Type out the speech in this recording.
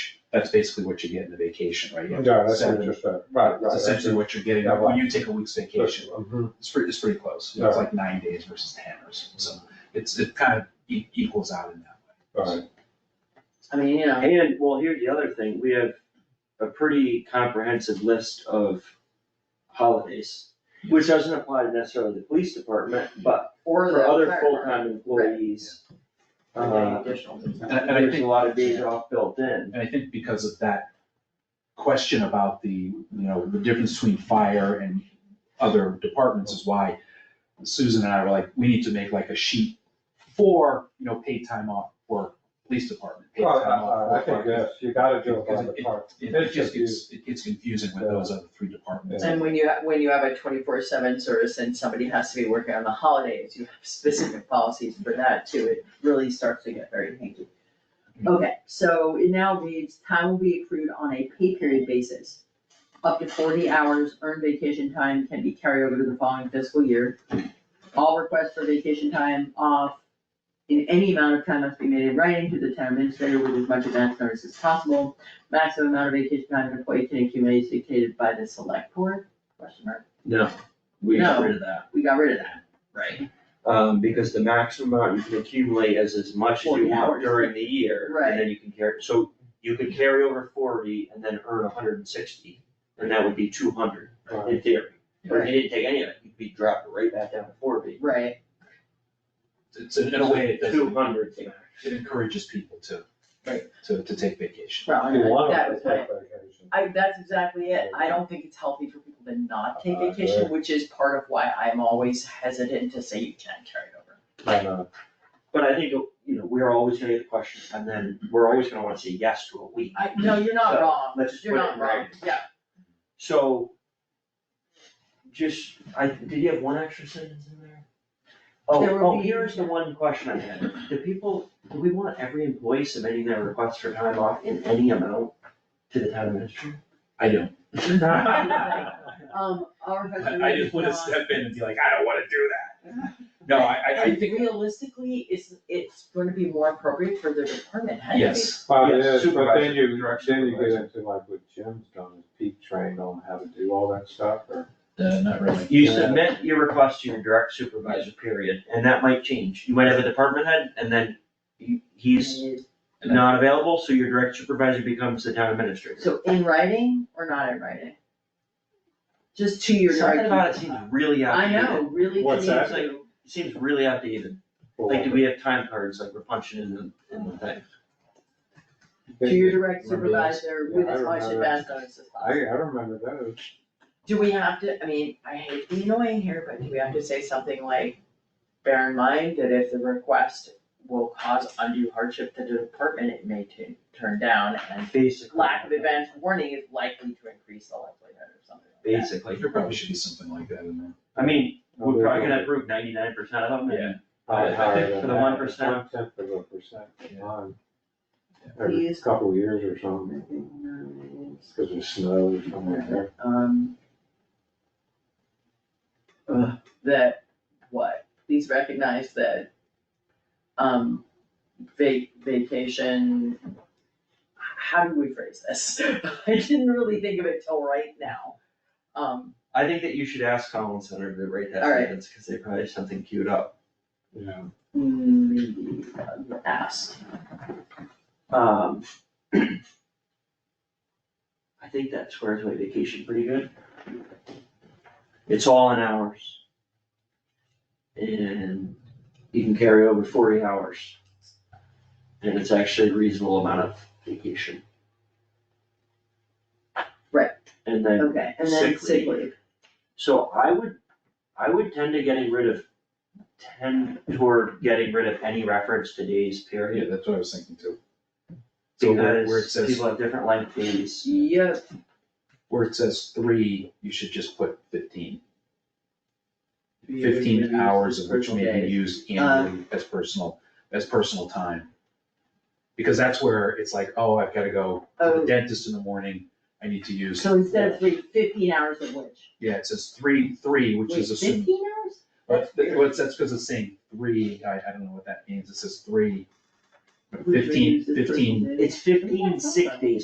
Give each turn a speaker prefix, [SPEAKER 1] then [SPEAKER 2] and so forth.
[SPEAKER 1] That's basically what you get in a vacation, right? You have
[SPEAKER 2] Yeah, that's
[SPEAKER 1] seven-
[SPEAKER 2] interesting, right, right.
[SPEAKER 1] That's essentially what you're getting, when you take a week's vacation,
[SPEAKER 2] Mhm.
[SPEAKER 1] it's pretty, it's pretty close, You know, it's like nine days versus ten or something, so it's, it kind of e- equals out in that way.
[SPEAKER 2] Right.
[SPEAKER 3] I mean, you know,
[SPEAKER 4] And, well, here's the other thing, we have a pretty comprehensive list of holidays, which doesn't apply to necessarily the police department, but
[SPEAKER 3] or
[SPEAKER 4] for
[SPEAKER 3] the
[SPEAKER 4] other
[SPEAKER 3] fire
[SPEAKER 4] full-time employees.
[SPEAKER 3] department,
[SPEAKER 4] Uh,
[SPEAKER 3] or the additional.
[SPEAKER 1] And I, and I
[SPEAKER 4] there's
[SPEAKER 1] think,
[SPEAKER 4] a lot of days off built in,
[SPEAKER 1] and I think because of that question about the, you know, the difference between fire and other departments is why Susan and I were like, we need to make like a sheet for, you know, paid time off for police department, paid
[SPEAKER 2] Well,
[SPEAKER 1] time
[SPEAKER 2] I- I, I
[SPEAKER 1] off for
[SPEAKER 2] think,
[SPEAKER 1] fire.
[SPEAKER 2] yes, you gotta do it by
[SPEAKER 1] Because
[SPEAKER 2] the
[SPEAKER 1] it-
[SPEAKER 2] part.
[SPEAKER 1] It it just gets, it gets confusing with those other three departments.
[SPEAKER 3] And when you, ha- when you have a twenty-four seven service and somebody has to be working on the holidays, you have specific policies for that too, it really starts to get very hanky. Okay, so it now reads, time will be accrued on a pay period basis. Up to forty hours earned vacation time can be carried over to the following fiscal year. All requests for vacation time off in any amount of time must be made in writing to the town administrator with as much advance notice as possible. Maximum amount of vacation time an employee can accumulate is dictated by the select board, question mark,
[SPEAKER 4] we got
[SPEAKER 3] No.
[SPEAKER 4] rid of that.
[SPEAKER 3] we got rid of that, right?
[SPEAKER 4] Um, because the maximum amount you can accumulate is as much as you
[SPEAKER 3] 40
[SPEAKER 4] want
[SPEAKER 3] hours.
[SPEAKER 4] during the year,
[SPEAKER 3] Right.
[SPEAKER 4] and then you can carry, so you could carry over forty and then earn hundred and sixty, and that would be two hundred,
[SPEAKER 2] Right.
[SPEAKER 4] in theory. But if
[SPEAKER 3] Right.
[SPEAKER 4] you didn't take any of it, you'd be dropped right back down to forty.
[SPEAKER 3] Right,
[SPEAKER 1] It's, in a way, it
[SPEAKER 4] Two
[SPEAKER 1] does,
[SPEAKER 4] hundred thing.
[SPEAKER 1] it encourages people to,
[SPEAKER 3] Right.
[SPEAKER 1] to, to take vacation.
[SPEAKER 3] well,
[SPEAKER 2] You want
[SPEAKER 3] that
[SPEAKER 2] them
[SPEAKER 3] was
[SPEAKER 2] to
[SPEAKER 3] my-
[SPEAKER 2] take vacation.
[SPEAKER 3] I, that's exactly it, I don't think it's healthy for people to not take
[SPEAKER 2] Uh,
[SPEAKER 3] vacation,
[SPEAKER 2] yeah.
[SPEAKER 3] which is part of why I'm always hesitant to say you can't carry it over.
[SPEAKER 2] I know.
[SPEAKER 4] But I think, you know, we're always gonna get the question, and then we're always gonna wanna say yes to a week.
[SPEAKER 3] I, no, you're not
[SPEAKER 4] So,
[SPEAKER 3] wrong,
[SPEAKER 4] let's just
[SPEAKER 3] you're
[SPEAKER 4] put it
[SPEAKER 3] not
[SPEAKER 4] in
[SPEAKER 3] wrong,
[SPEAKER 4] writing.
[SPEAKER 3] yeah,
[SPEAKER 4] So. Just, I, did you have one extra sentence in there? Oh,
[SPEAKER 3] There would
[SPEAKER 4] oh,
[SPEAKER 3] be-
[SPEAKER 4] here's the one question I had, do people, do we want every employee submitting their request for time off in any amount to the town administrator?
[SPEAKER 1] I don't. I,
[SPEAKER 3] um, our husband
[SPEAKER 1] I just wanna step in and be like, I don't wanna do that. No, I, I, I think,
[SPEAKER 3] Realistically, it's, it's gonna be more appropriate for their department head. to be-
[SPEAKER 1] yes,
[SPEAKER 2] Well, it
[SPEAKER 4] Yes,
[SPEAKER 2] is, but
[SPEAKER 4] supervisor,
[SPEAKER 2] then you,
[SPEAKER 4] direction
[SPEAKER 2] then you get
[SPEAKER 4] supervisor.
[SPEAKER 2] into like what Jim's done, is peak trained on how to do all that stuff, or.
[SPEAKER 1] uh, not really.
[SPEAKER 4] You
[SPEAKER 2] Yeah.
[SPEAKER 4] submit your request to your direct supervisor, period, and that might change, you might have a department head, and then he- he's
[SPEAKER 1] And I-
[SPEAKER 4] not available, so your direct supervisor becomes the town administrator.
[SPEAKER 3] So in writing or not in writing? Just to your
[SPEAKER 4] Something about it
[SPEAKER 3] direct.
[SPEAKER 4] seems really
[SPEAKER 3] I
[SPEAKER 4] outdated.
[SPEAKER 3] know, really to me
[SPEAKER 2] What's that?
[SPEAKER 3] too.
[SPEAKER 4] It Seems really outdated. Like, do we have time cards, like we're punching in the, in the thing?
[SPEAKER 3] To your direct
[SPEAKER 1] Remember those?
[SPEAKER 3] supervisor with
[SPEAKER 2] Yeah, I
[SPEAKER 3] as much
[SPEAKER 2] remember.
[SPEAKER 3] advance notice as
[SPEAKER 2] I, I
[SPEAKER 3] possible.
[SPEAKER 2] remember those.
[SPEAKER 3] Do we have to, I mean, I hate being annoying here, but do we have to say something like, bear in mind that if the request will cause undue hardship to the department, it may tu- turn down and
[SPEAKER 4] Basically.
[SPEAKER 3] lack of advance warning is likely to increase the likelihood or something like that.
[SPEAKER 4] Basically.
[SPEAKER 1] There probably should be something like that in there.
[SPEAKER 4] I mean, we're probably gonna approve ninety-nine percent of them, and
[SPEAKER 2] Probably higher than
[SPEAKER 4] For the
[SPEAKER 2] that.
[SPEAKER 4] 1%.
[SPEAKER 2] One tenth of a percent,
[SPEAKER 1] Yeah.
[SPEAKER 2] on
[SPEAKER 1] Yeah.
[SPEAKER 2] every
[SPEAKER 3] Please.
[SPEAKER 2] couple of years or something, because there's snow or something like that.
[SPEAKER 3] um. ugh, that, what, please recognize that, um, va- vacation, h- how do we phrase this? I didn't really think of it till right now. Um,
[SPEAKER 4] I think that you should ask Collins Center to rate that
[SPEAKER 3] All right.
[SPEAKER 4] sentence, cause they probably have something queued up.
[SPEAKER 2] Yeah.
[SPEAKER 3] mm, ask,
[SPEAKER 4] Um. I think that squares my vacation pretty good. It's all in hours. And you can carry over forty hours. And it's actually a reasonable amount of vacation.
[SPEAKER 3] Right.
[SPEAKER 4] And then
[SPEAKER 3] okay, and then
[SPEAKER 4] Sick leave.
[SPEAKER 3] sick leave,
[SPEAKER 4] so I would, I would tend to getting rid of, tend toward getting rid of any reference to days
[SPEAKER 1] Yeah,
[SPEAKER 4] period.
[SPEAKER 1] that's what I was thinking too. So where, where it
[SPEAKER 4] Because
[SPEAKER 1] says,
[SPEAKER 4] people have different length days.
[SPEAKER 3] yep.
[SPEAKER 1] where it says three, you should just put fifteen.
[SPEAKER 3] Yeah, Uh, you
[SPEAKER 1] Fifteen
[SPEAKER 3] can
[SPEAKER 1] hours
[SPEAKER 3] use
[SPEAKER 1] of which may
[SPEAKER 3] personal
[SPEAKER 1] be
[SPEAKER 3] days.
[SPEAKER 1] used annually as personal, as personal time. Because that's where it's like, oh, I've gotta go to
[SPEAKER 3] Oh.
[SPEAKER 1] the dentist in the morning, I need to use,
[SPEAKER 3] So instead of three, fifteen hours of which?
[SPEAKER 1] yeah, it says three, three, which
[SPEAKER 3] Wait,
[SPEAKER 1] is assumed.
[SPEAKER 3] Fifteen hours?
[SPEAKER 1] But,
[SPEAKER 3] That's weird.
[SPEAKER 1] well, it's- that's because it's saying three, I, I don't know what that means, it says three.
[SPEAKER 3] Who's
[SPEAKER 1] Fifteen,
[SPEAKER 3] reduced as
[SPEAKER 1] fifteen
[SPEAKER 3] personal days?
[SPEAKER 4] It's fifteen sick days